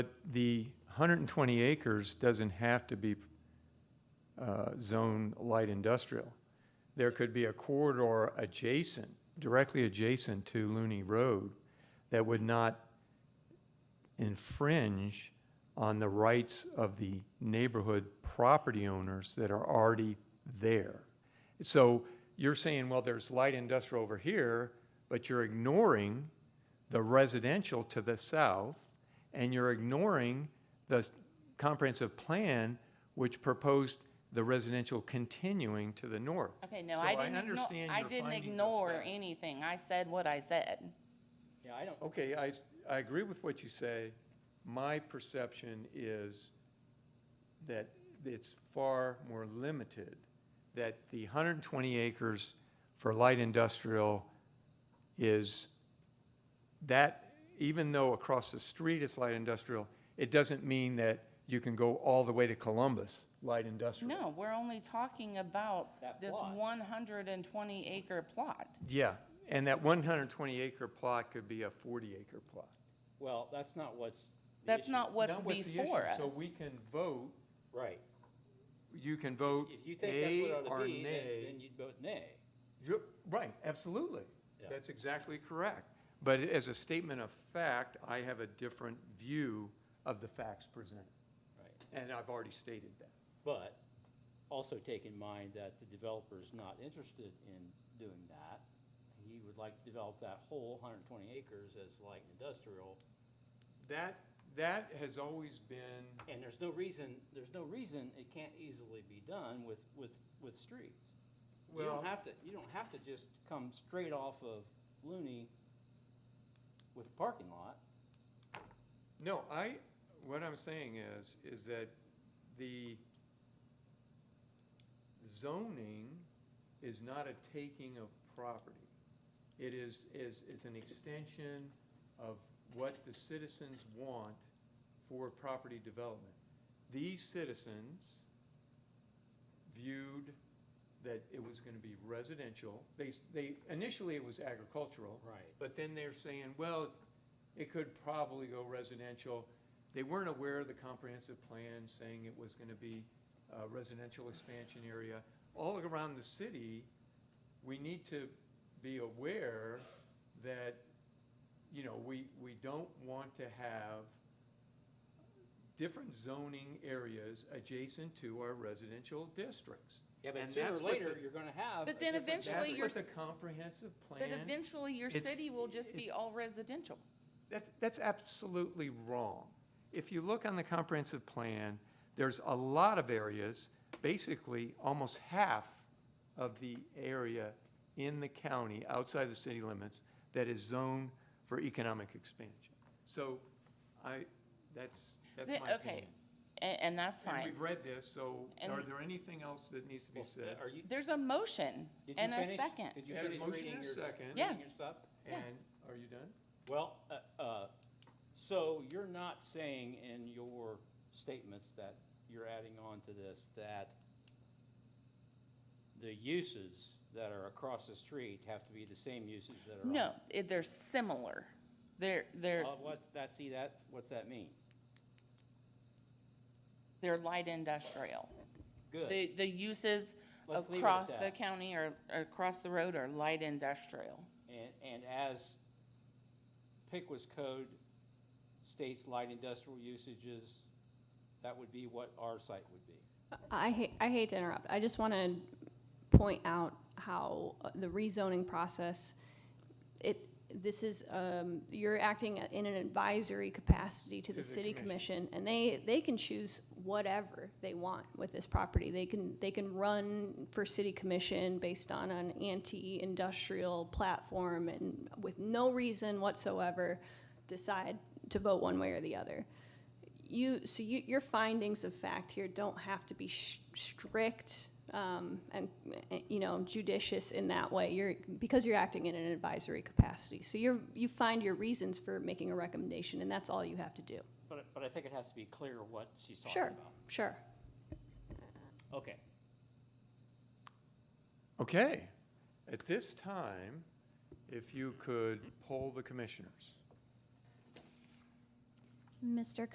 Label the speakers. Speaker 1: the 120 acres doesn't have to be uh, zone light industrial. There could be a corridor adjacent, directly adjacent to Looney Road, that would not infringe on the rights of the neighborhood property owners that are already there. So you're saying, well, there's light industrial over here, but you're ignoring the residential to the south, and you're ignoring the s- comprehensive plan which proposed the residential continuing to the north.
Speaker 2: Okay, no, I didn't ignore,
Speaker 1: So I understand
Speaker 2: I
Speaker 1: your
Speaker 2: didn't
Speaker 1: findings of
Speaker 2: ignore
Speaker 1: fact.
Speaker 2: anything. I said what I said.
Speaker 3: Yeah, I don't,
Speaker 1: Okay, I, I agree with what you say. My perception is that it's far more limited, that the 120 acres for light industrial is, that, even though across the street it's light industrial, it doesn't mean that you can go all the way to Columbus, light industrial.
Speaker 2: No, we're only talking about
Speaker 3: That
Speaker 2: this
Speaker 3: plot.
Speaker 2: one hundred and twenty acre plot.
Speaker 1: Yeah, and that 120 acre plot could be a 40 acre plot.
Speaker 3: well, that's not what's. the
Speaker 2: That's
Speaker 3: issue.
Speaker 2: not what's
Speaker 1: That was the issue.
Speaker 2: before us.
Speaker 1: So we can vote
Speaker 3: Right.
Speaker 1: you can vote
Speaker 3: If you think that's
Speaker 1: yea
Speaker 3: what ought
Speaker 1: or
Speaker 3: to be, then,
Speaker 1: nay.
Speaker 3: then you'd vote nay.
Speaker 1: You're- Right, absolutely.
Speaker 3: Yeah.
Speaker 1: That's exactly correct. But as a statement of fact, I have a different view of the facts presented,
Speaker 3: Right.
Speaker 1: and I've already stated that.
Speaker 3: But also take in mind that the developer's not interested in doing that. He would like to develop that whole hundred and twenty acres as light industrial.
Speaker 1: That, that has always been,
Speaker 3: And there's no reason, there's no reason it can't easily be done with, with, with streets. You
Speaker 1: Well-
Speaker 3: don't have to, you don't have to just come straight off of Looney with a parking lot.
Speaker 1: no, I, what I'm saying is, is that the zoning is not a taking of property. It is, is, is an extension of what the citizens want for property development. These citizens viewed that it was gonna be residential. They, s- they, initially it was agricultural.
Speaker 3: Right.
Speaker 1: But then they're saying, well, it could probably go residential. They weren't aware of the comprehensive plan saying it was gonna be a residential expansion area. All around the city, we need to be aware that, you know, we, we don't want to have different zoning areas adjacent to our residential districts.
Speaker 3: Yeah, but
Speaker 1: And
Speaker 3: sooner or
Speaker 1: that's what
Speaker 3: later,
Speaker 1: the-
Speaker 3: you're gonna have.
Speaker 2: But
Speaker 3: a
Speaker 2: then
Speaker 3: different
Speaker 1: That's
Speaker 2: eventually you're
Speaker 1: what
Speaker 3: demographic.
Speaker 1: the
Speaker 2: s-
Speaker 1: comprehensive
Speaker 2: But
Speaker 1: plan,
Speaker 2: eventually your
Speaker 1: it's-
Speaker 2: city will just be all residential.
Speaker 1: that's, that's absolutely wrong. If you look on the comprehensive plan, there's a lot of areas, basically almost half of the area in the county outside the city limits that is zoned for economic expansion. So I, that's, that's my
Speaker 2: Th-
Speaker 1: opinion.
Speaker 2: Okay, and, and that's
Speaker 1: And
Speaker 2: fine.
Speaker 1: we've read this, so
Speaker 2: And-
Speaker 1: are there anything else that needs to be
Speaker 3: Well,
Speaker 1: said?
Speaker 3: Are you,
Speaker 2: There's a motion
Speaker 3: did you
Speaker 2: and a
Speaker 3: finish?
Speaker 2: second.
Speaker 3: Did you
Speaker 1: There's a
Speaker 3: finish
Speaker 1: motion
Speaker 3: reading
Speaker 1: and a
Speaker 3: your?
Speaker 1: second.
Speaker 3: reading your
Speaker 2: Yes.
Speaker 3: stuff?
Speaker 2: yeah.
Speaker 1: And, are you done?
Speaker 3: Well, uh, uh, so you're not saying in your statements that you're adding on to this that the uses that are across the street have to be the same uses that are on?
Speaker 2: No, it- they're similar. They're, they're,
Speaker 3: Well, what's that, see that, what's that mean?
Speaker 2: they're light industrial.
Speaker 3: Good,
Speaker 2: The, the uses
Speaker 3: Let's leave it at
Speaker 2: across the
Speaker 3: that.
Speaker 2: county or, or across the road are light industrial.
Speaker 3: and, and as Pickwa's code states light industrial usages, that would be what our site would be.
Speaker 4: I hate, I hate to interrupt. I just want to point out how uh, the rezoning process, it, this is, um, you're acting in an advisory capacity to the city commission, and they, they can choose whatever they want with this property. They can, they can run for city commission based on an anti-industrial platform and with no reason whatsoever decide to vote one way or the other you, so you, your findings of fact here don't have to be sh- strict um, and, eh, you know, judicious in that way. You're, because you're acting in an advisory capacity. So you're, you find your reasons for making a recommendation, and that's all you have to do.
Speaker 3: But, I- but I think it has to be clear what she's talking
Speaker 4: Sure,
Speaker 3: about.
Speaker 4: sure.
Speaker 3: Okay,
Speaker 1: Okay. At this time, if you could poll the commissioners.
Speaker 5: Mr.